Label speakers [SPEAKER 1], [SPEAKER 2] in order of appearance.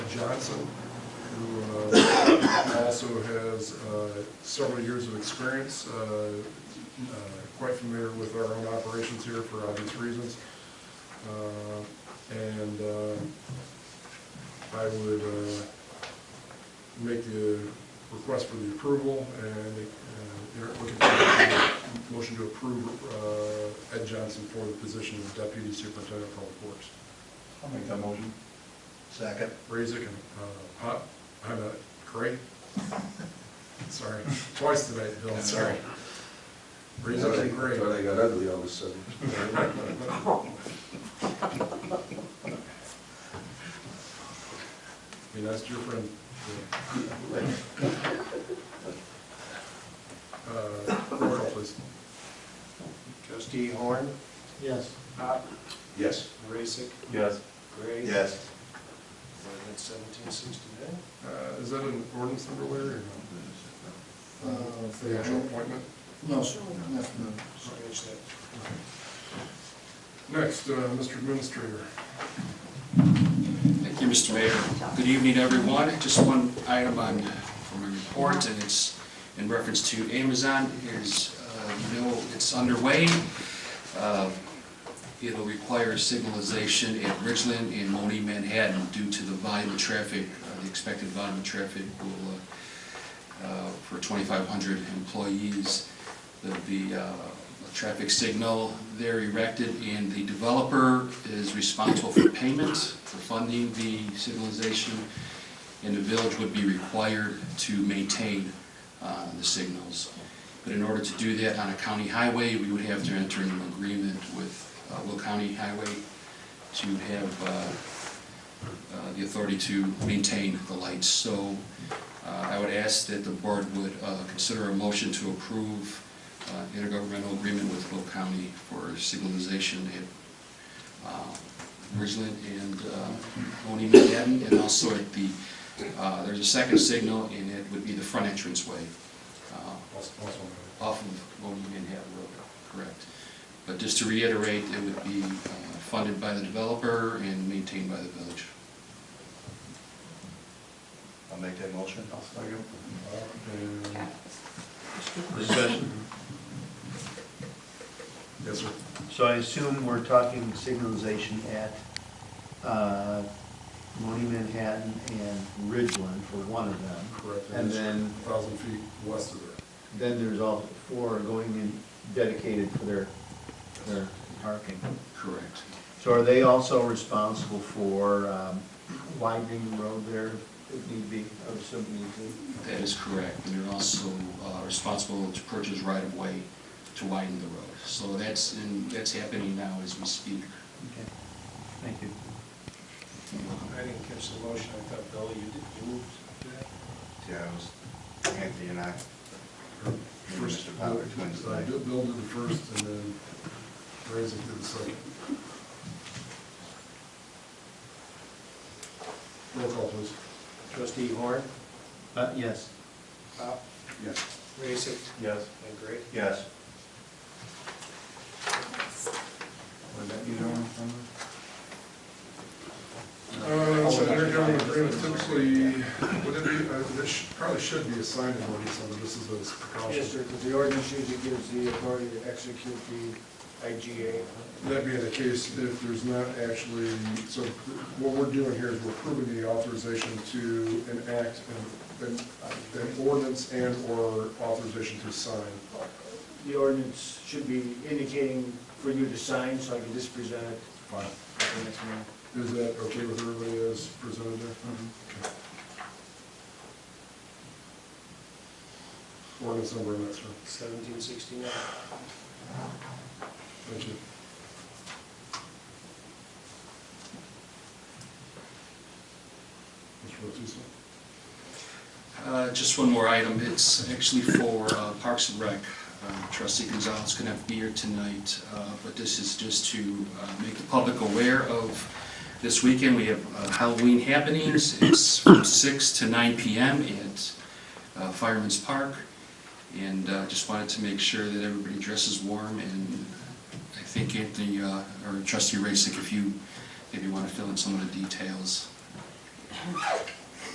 [SPEAKER 1] Johnson, who uh, also has uh, several years of experience, uh, uh, quite familiar with our own operations here for obvious reasons. Uh, And uh, I would uh, make the request for the approval and uh, you're looking for a motion to approve uh, Ed Johnson for the position of Deputy Superintendent of Public Works.
[SPEAKER 2] I'll make that motion. Second.
[SPEAKER 1] Raisik and, uh, Hot, I'm uh, Cray. Sorry, twice tonight, Bill, sorry. Raisik and Cray.
[SPEAKER 3] Thought I got ugly all of a sudden.
[SPEAKER 1] Be nice to your friend. Uh, Roll call, please.
[SPEAKER 4] Trustee Horn?
[SPEAKER 2] Yes.
[SPEAKER 4] Pop.
[SPEAKER 3] Yes.
[SPEAKER 4] Raisik?
[SPEAKER 2] Yes.
[SPEAKER 4] Gray?
[SPEAKER 2] Yes.
[SPEAKER 4] Ordinance seventeen sixty-nine?
[SPEAKER 1] Uh, Is that an ordinance number, Larry, or no? Uh, For the actual appointment?
[SPEAKER 2] No, sir. No.
[SPEAKER 4] Scratch that.
[SPEAKER 1] Next, uh, Mr. Administrator.
[SPEAKER 5] Thank you, Mr. Mayor. Good evening, everyone. Just one item on, uh, from my report, and it's in reference to Amazon. Is, uh, you know, it's underway. Uh, It'll require signalization at Ridgeland and Moni Manhattan due to the volume of traffic, uh, the expected volume of traffic will, uh, uh, for 2,500 employees. There'll be uh, a traffic signal there erected, and the developer is responsible for payment, for funding the signalization, and the village would be required to maintain uh, the signals. But in order to do that on a county highway, we would have to enter into an agreement with uh, Will County Highway to have uh, uh, the authority to maintain the lights. So uh, I would ask that the board would uh, consider a motion to approve uh, intergovernmental agreement with Will County for signalization at uh, Ridgeland and uh, Oni Manhattan, and also at the, uh, there's a second signal, and it would be the front entrance way uh,
[SPEAKER 1] Also, also,
[SPEAKER 5] off of Oni Manhattan Road, correct. But just to reiterate, it would be uh, funded by the developer and maintained by the village.
[SPEAKER 2] I'll make that motion. I'll second.
[SPEAKER 1] and-
[SPEAKER 6] Discussion.
[SPEAKER 1] Yes, sir.
[SPEAKER 6] So I assume we're talking signalization at uh, Mooney Manhattan and Ridgeland for one of them.
[SPEAKER 1] Correct.
[SPEAKER 6] And then,
[SPEAKER 1] 1,000 feet west of there.
[SPEAKER 6] then there's all four going in dedicated for their, their parking.
[SPEAKER 5] Correct.
[SPEAKER 6] So are they also responsible for um, widening the road there if need be, I would assume need
[SPEAKER 5] That is correct, and they're also uh, responsible to purchase right-of-way to widen the road. So that's, in- that's happening now as we speak.
[SPEAKER 6] to? Okay, thank you.
[SPEAKER 4] I didn't catch the motion, I thought, Bill, you did, you moved that?
[SPEAKER 2] Yeah, it was Anthony and I.
[SPEAKER 1] First,
[SPEAKER 2] Mr. Bauer, twins,
[SPEAKER 1] uh,
[SPEAKER 2] like-
[SPEAKER 1] Bill Bill did the first, and then Raisik did the second. Roll call, please.
[SPEAKER 4] Trustee Horn?
[SPEAKER 6] Uh, Yes.
[SPEAKER 4] Pop.
[SPEAKER 2] Yes.
[SPEAKER 4] Raisik?
[SPEAKER 2] Yes.
[SPEAKER 4] And Gray?
[SPEAKER 2] Yes. Would that be the one?
[SPEAKER 1] Uh, So intergovernmental agreement typically, would it be, uh, this sh- probably should be assigned in ordinance, so this is a
[SPEAKER 4] Yes, sir,
[SPEAKER 1] precaution.
[SPEAKER 4] because the ordinance usually gives the authority to execute the IGA.
[SPEAKER 1] That being the case, if there's not actually, so what we're doing here is we're approving the authorization to enact an- an an ordinance and/or authorization to sign.
[SPEAKER 4] The ordinance should be indicating for you to sign, so I can just present it. Fine.
[SPEAKER 1] Is that okay with everybody as presented there? Okay. Ordinance number, that's right.
[SPEAKER 4] Seventeen sixty-nine.
[SPEAKER 1] Thank you. Mr. Bautista?
[SPEAKER 5] Uh, Just one more item, it's actually for uh, Parks and Rec. Uh, Trustee Gonzalez couldn't be here tonight, uh, but this is just to uh, make the public aware of this weekend, we have uh, Halloween happenings. It's from 6 to 9 PM at uh, Fireman's Park, and uh, just wanted to make sure that everybody dresses warm, and I think Anthony, uh, or Trustee Racick, if you, if you want to fill in some of the details,